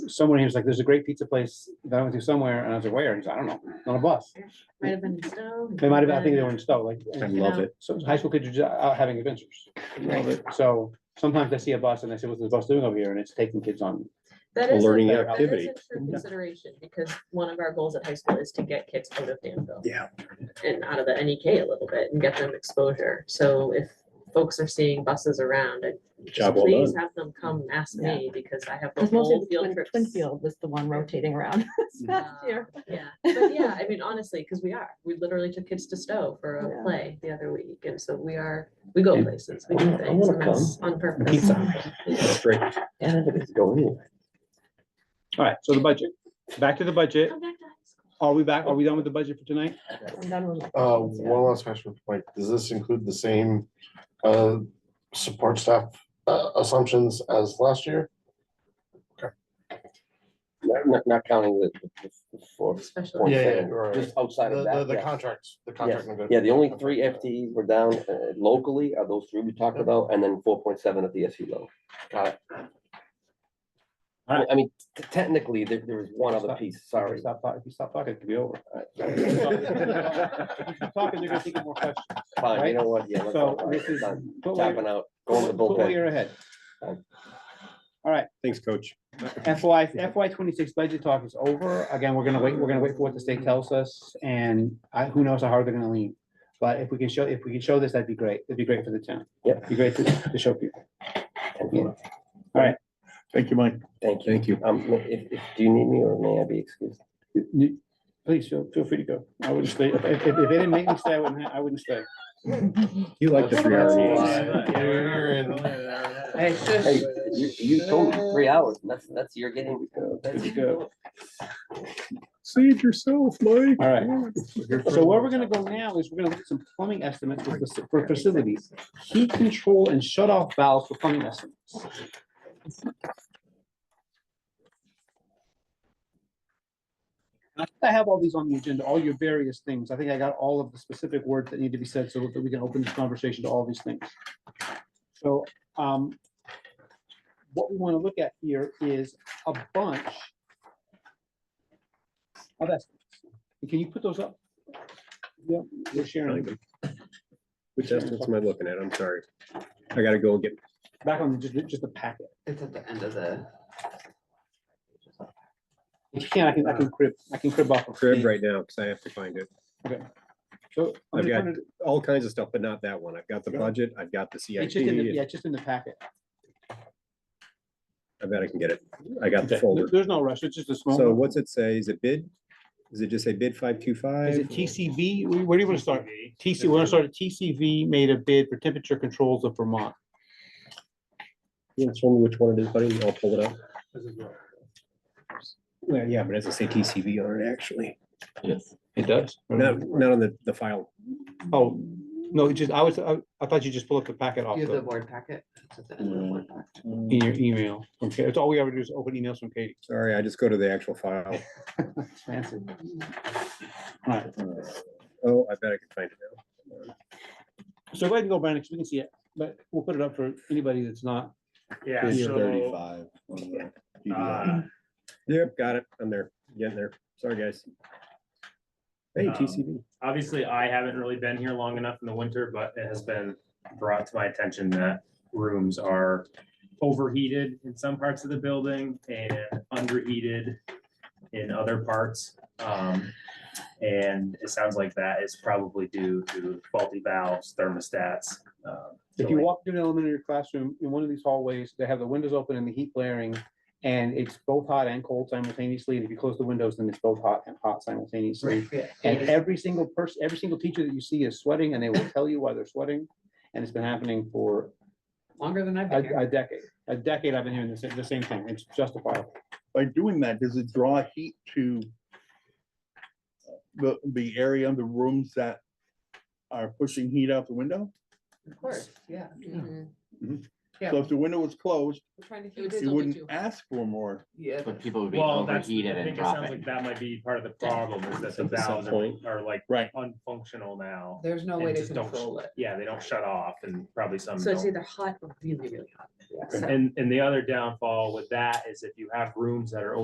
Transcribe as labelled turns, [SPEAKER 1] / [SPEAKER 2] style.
[SPEAKER 1] someone, he was like, there's a great pizza place that I went to somewhere, and I was like, where? He's, I don't know, on a bus.
[SPEAKER 2] Might have been stone.
[SPEAKER 1] They Mm-hmm. might have, I think they were in Stowe, like,
[SPEAKER 3] I
[SPEAKER 1] and
[SPEAKER 3] love it,
[SPEAKER 1] so high school kids are ju- out having adventures.
[SPEAKER 3] love it.
[SPEAKER 1] So sometimes they see a bus and they say, what's this bus doing over here? And it's taking kids on.
[SPEAKER 2] That is a-
[SPEAKER 3] learning
[SPEAKER 2] that is a
[SPEAKER 3] activity.
[SPEAKER 2] true Consideration, because one of our goals at high school is to get kids out of Danville.
[SPEAKER 3] Yeah.
[SPEAKER 2] And out of the NEK a little bit and get them exposure. So if folks are seeing buses around, I-
[SPEAKER 3] Job well
[SPEAKER 2] please
[SPEAKER 3] done.
[SPEAKER 2] have them come ask me, because I have the
[SPEAKER 4] Because mostly
[SPEAKER 2] whole
[SPEAKER 4] the
[SPEAKER 2] field
[SPEAKER 4] Twin-
[SPEAKER 2] trips.
[SPEAKER 4] Twinfield was the one rotating around this past
[SPEAKER 2] Uh,
[SPEAKER 4] year.
[SPEAKER 2] Yeah, but yeah, I mean, honestly, because we are, we literally took kids to Stowe for a
[SPEAKER 4] Yeah.
[SPEAKER 2] play the other week, and so we are, we go
[SPEAKER 3] And-
[SPEAKER 2] places, we do
[SPEAKER 3] I
[SPEAKER 2] things,
[SPEAKER 3] wanna
[SPEAKER 2] and that's on purpose.
[SPEAKER 3] Pizza. That's great. And I think it's going anywhere.
[SPEAKER 1] All right, so the budget, back to the budget.
[SPEAKER 2] Come back to high school.
[SPEAKER 1] Are we back? Are we done with the budget for tonight?
[SPEAKER 4] I'm done with my
[SPEAKER 5] Uh,
[SPEAKER 4] questions, Oh, yeah.
[SPEAKER 5] one last question, Mike, does this include the same, uh, support staff, uh, assumptions as last year?
[SPEAKER 6] Not, not- not counting the, the- the four,
[SPEAKER 2] Especially.
[SPEAKER 6] Point
[SPEAKER 5] Yeah, yeah,
[SPEAKER 6] seven,
[SPEAKER 5] right,
[SPEAKER 6] just
[SPEAKER 5] The,
[SPEAKER 6] outside of
[SPEAKER 5] the,
[SPEAKER 6] that.
[SPEAKER 5] the
[SPEAKER 6] yes.
[SPEAKER 5] contracts, the
[SPEAKER 6] Yes.
[SPEAKER 5] contract. nego-
[SPEAKER 6] Yeah, the only three FTEs were down uh, locally are those three we talked
[SPEAKER 5] Yep.
[SPEAKER 6] about, and then four point seven at the SU level. Got it. I
[SPEAKER 1] Alright.
[SPEAKER 6] I mean, t- technically, there, there was one other piece,
[SPEAKER 1] If you
[SPEAKER 6] sorry.
[SPEAKER 1] Stop, talk- if you stop talking, it could be over. If you keep Talking, they're gonna think of more questions.
[SPEAKER 6] Fine,
[SPEAKER 1] Right?
[SPEAKER 6] you know what, yeah. let's
[SPEAKER 1] So
[SPEAKER 6] all-
[SPEAKER 1] this is.
[SPEAKER 6] done.
[SPEAKER 1] put where-
[SPEAKER 6] Tapping out, going to
[SPEAKER 1] put-
[SPEAKER 6] the
[SPEAKER 1] put where
[SPEAKER 6] bullpen.
[SPEAKER 1] you're ahead.
[SPEAKER 3] Thanks, coach.
[SPEAKER 1] FY, FY twenty-six budget talk is over. Again, we're gonna wait, we're gonna wait for what the state tells us and I, who knows how hard they're gonna lean. But if we can show, if we can show this, that'd be great. It'd be great for the town.
[SPEAKER 6] Yep.
[SPEAKER 1] Be great to, to show people.
[SPEAKER 3] Thank you, Mike.
[SPEAKER 6] Thank you.
[SPEAKER 3] Thank you.
[SPEAKER 6] Um, if, if, do you need me or may I be excused?
[SPEAKER 1] You- Please, feel, feel free to go. I wouldn't stay. If, if if they didn't make me stay, I wouldn't, ha- I wouldn't stay.
[SPEAKER 3] You like the three hour meetings.
[SPEAKER 5] Yeah, you're in.
[SPEAKER 1] E. Hey,
[SPEAKER 6] Hey, you, you told me three hours, and that's, that's your getting.
[SPEAKER 1] Let's go.
[SPEAKER 3] Save yourself, Mike.
[SPEAKER 1] All right. So where we're gonna go now is we're gonna look at some plumbing estimates for faci- for facilities, heat control and shut off valves for plumbing estimates. I think I have all these on the agenda, all your various things. I think I got all of the specific words that need to be said so that we can open this conversation to all these things. So, um, what we wanna look at here is a bunch of estimates. Can you put those up? Yeah, we're sharing.
[SPEAKER 3] Which estimates am I looking at? I'm sorry. I gotta go and get,
[SPEAKER 1] Back on just, just the packet.
[SPEAKER 2] It's at the end of the.
[SPEAKER 1] If you can, I can, I can crib, I can crib off. of
[SPEAKER 3] crib
[SPEAKER 1] Steve.
[SPEAKER 3] right now, because I have to find it.
[SPEAKER 1] So I'm
[SPEAKER 3] I've
[SPEAKER 1] just
[SPEAKER 3] got-
[SPEAKER 1] wondering-
[SPEAKER 3] All kinds of stuff, but not that one. I've got the
[SPEAKER 1] Yeah.
[SPEAKER 3] budget, I've got the CIP.
[SPEAKER 1] It's just in the, yeah, it's just in the packet.
[SPEAKER 3] I bet I can get it. I got the
[SPEAKER 1] Okay.
[SPEAKER 3] folder.
[SPEAKER 1] There's no rush, it's just a small.
[SPEAKER 3] So
[SPEAKER 1] one.
[SPEAKER 3] what's it say? Is it bid? Does it just say bid five two
[SPEAKER 1] Is it
[SPEAKER 3] five?
[SPEAKER 1] TCB? Where where do you want to start? TC, we're gonna start at TCV made a bid for temperature controls of Vermont.
[SPEAKER 3] Yeah, show me which one it is, buddy. I'll pull it up. Well, yeah, but it doesn't say TCV on it, actually.
[SPEAKER 1] It does?
[SPEAKER 3] Not,
[SPEAKER 1] Mm.
[SPEAKER 3] not on the, the file.
[SPEAKER 1] Oh, no, it just, I was, I I thought you just pulled up the packet off
[SPEAKER 2] You have the
[SPEAKER 1] the,
[SPEAKER 2] board packet. It's at the end of the board packet.
[SPEAKER 1] in your email. Okay, it's all we ever do is open emails from Katie.
[SPEAKER 3] Sorry, I just go to the actual file.
[SPEAKER 1] Fancy. All right,
[SPEAKER 3] Oh, I bet I can find it now.
[SPEAKER 1] so go ahead and go, Brandon, 'cause we can see it, but we'll put it up for anybody that's not.
[SPEAKER 7] Yeah,
[SPEAKER 1] Page
[SPEAKER 7] so, uh,
[SPEAKER 3] Yep, got it. I'm there. Getting there. Sorry, guys. Hey,
[SPEAKER 7] Um,
[SPEAKER 3] TCB.
[SPEAKER 7] obviously, I haven't really been here long enough in the winter, but it has been brought to my attention that rooms are overheated in some parts of the building and underheated in other parts. Um, and it sounds like that is probably due to faulty valves, thermostats. um, so
[SPEAKER 1] If you
[SPEAKER 7] like-
[SPEAKER 1] walk through an elementary classroom in one of these hallways, they have the windows open and the heat blaring. And it's both hot and cold simultaneously. And if you close the windows, then it's both hot and hot simultaneously. And every single person, every single teacher that you see is sweating and they will tell you why they're sweating. And it's been happening for
[SPEAKER 2] Longer than I've
[SPEAKER 1] a,
[SPEAKER 2] been here.
[SPEAKER 1] a decade. A decade I've been hearing the same, the same thing. It's justifiable.
[SPEAKER 8] by doing that, does it draw heat to the, the area of the rooms that are pushing heat out the window?
[SPEAKER 2] Of course, yeah. Mhm.
[SPEAKER 8] So if the window was closed,
[SPEAKER 2] We're trying to
[SPEAKER 4] It would
[SPEAKER 2] keep it
[SPEAKER 8] you
[SPEAKER 2] still
[SPEAKER 8] wouldn't
[SPEAKER 2] too hot.
[SPEAKER 8] ask for more.
[SPEAKER 2] Yeah.
[SPEAKER 6] But people would
[SPEAKER 7] Well, that's, I think it sounds like that might be part of the problem is that the
[SPEAKER 3] At the some
[SPEAKER 7] valves
[SPEAKER 3] point.
[SPEAKER 7] are- are like
[SPEAKER 8] Right.
[SPEAKER 7] unfunctional now.
[SPEAKER 2] There's no
[SPEAKER 7] and
[SPEAKER 2] way to
[SPEAKER 7] just don't sh-
[SPEAKER 2] control it.
[SPEAKER 7] Yeah, they don't shut off and probably some
[SPEAKER 2] So it's
[SPEAKER 7] don't.
[SPEAKER 2] either hot or really, really hot. So-
[SPEAKER 7] And, and the other downfall with that is if you have rooms that are